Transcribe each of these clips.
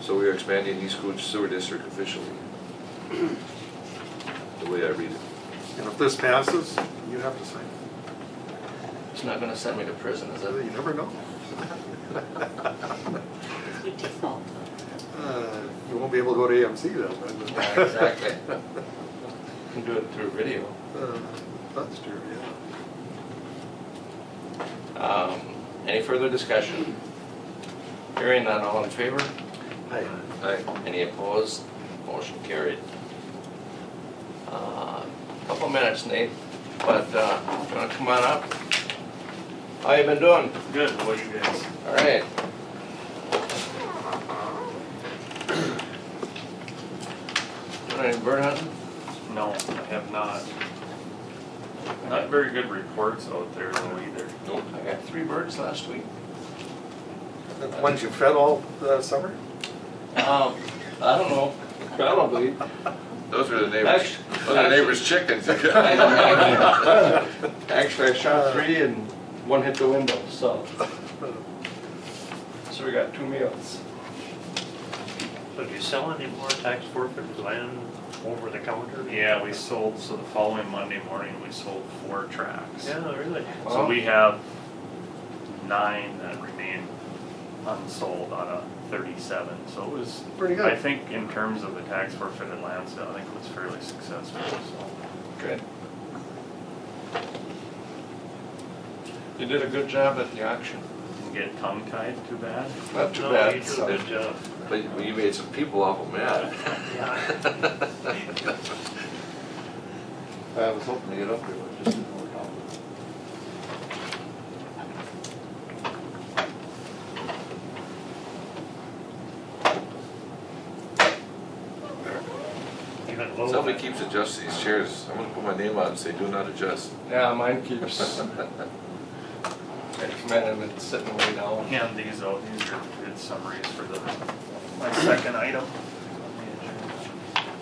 So we are expanding East Cooch Sewer District officially. The way I read it. And if this passes, you have to sign. It's not gonna send me to prison, is You it? never know. Your default. Uh, You won't be able to go to AMC then. but- Yeah, exactly. Can do it through video. Uh, That's true, yeah. Um, Any further discussion? Hearing none, all in favor? Hi. Aye. Any opposed? Motion carried. Uh, Couple minutes, Nate, but uh, you wanna come on up? How you been doing? Good, what do you guys? All right. Doing any bird hunting? No, I have not. Not very good reports out there though either. Nope. I got three birds last week. The ones you fed all uh, summer? Um, I don't know, probably. Those were the neighbors, those were the neighbors' chickens. Actually, I shot three and one hit the window, so, so we got two meals. So do you sell any more tax forfeited land over the counter? Yeah, we sold, so the following Monday morning, we sold four tracks. Yeah, really? So we have nine that remain unsold out of thirty-seven, so it was. Pretty I good. think in terms of the tax forfeited land sale, I think it was fairly successful, so. Good. You did a good job at the auction. Didn't get tongue tied too bad. Not too No, bad. you did so- a good job. But you- you made some people awful mad. Yeah. I was hoping to get up there, but it just didn't work out. Even lower. Somebody keeps adjusting these chairs. I'm gonna put my name on and say, do not adjust. Yeah, mine keeps. I commend him, it's sitting way down. Hand these out, these are good summaries for the, my second item.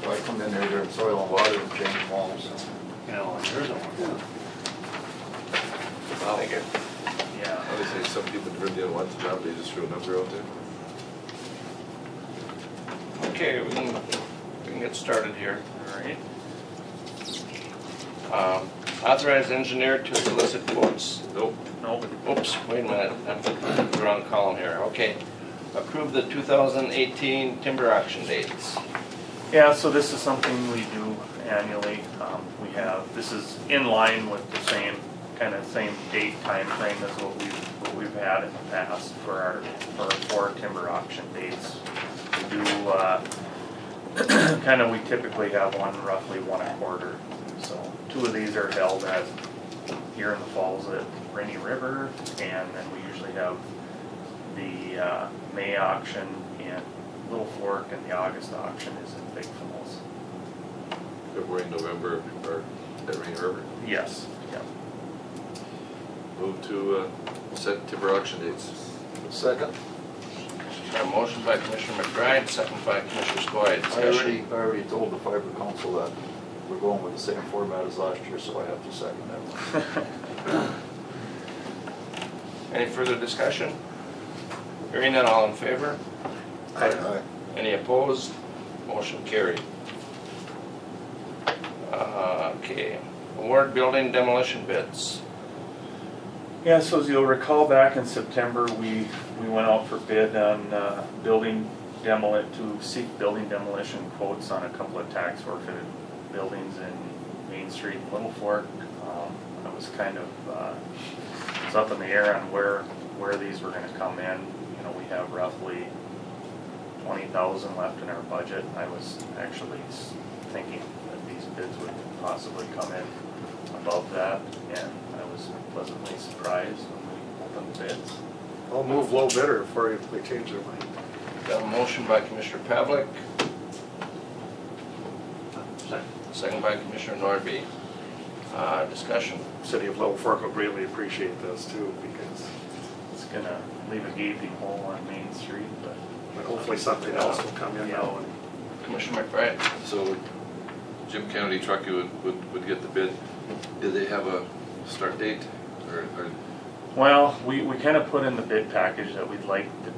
So I come in there during soil and water and change walls. You know, there's a one. I think it. Yeah. I would say some people really didn't want the job, they just threw a number out there. Okay, we can, we can get started here. All right. Um, Authorize engineer to solicit quotes. Nope. Nope. Oops, wait a minute, I'm in the wrong column here, okay. Approve the 2018 timber auction dates. Yeah, so this is something we do annually. Um, we have, this is in line with the same, kind of same date time frame as what we've, what we've had in the past for our, for our four timber auction dates. We do, uh, kind of, we typically have one roughly one a quarter. So two of these are held at, here in the falls at Rainy River, and then we usually have the uh, May auction in Little Fork and the August auction is in Big Falls. February, November, or at Rainy River. Yes. Yep. Move to, uh, set timber auction dates. Second, A motion by Commissioner McBride, second by Commissioner Skoye. I Discussion. already, I already told the fiber council that we're going with the same format as last year, so I have to second that one. Any further discussion? Hearing none, all in favor? Aye. Any opposed? Motion carried. Uh, Okay, award building demolition bids. Yeah, so as you'll recall, back in September, we, we went out for bid on uh, building demoli, to seek building demolition quotes on a couple of tax forfeited buildings in Main Street and Little Fork. Um, I was kind of, uh, it's up in the air on where, where these were gonna come in. You know, we have roughly twenty thousand left in our budget. I was actually s- thinking that these bids would possibly come in above that, and I was pleasantly surprised when we opened the bids. I'll move low bidder before we change their mind. Got a motion by Commissioner Pavlik, Second. second by Commissioner Norby. Uh, Discussion. City of Level Fork will greatly appreciate this too, because, It's gonna leave a gaping hole on Main Street, but but hopefully something else will come in now. and- Commissioner McBride? So Jim Kennedy Truckee would, would, would get the bid. Did they have a start date or, or Well, we, we kind of put in the bid package that we'd like to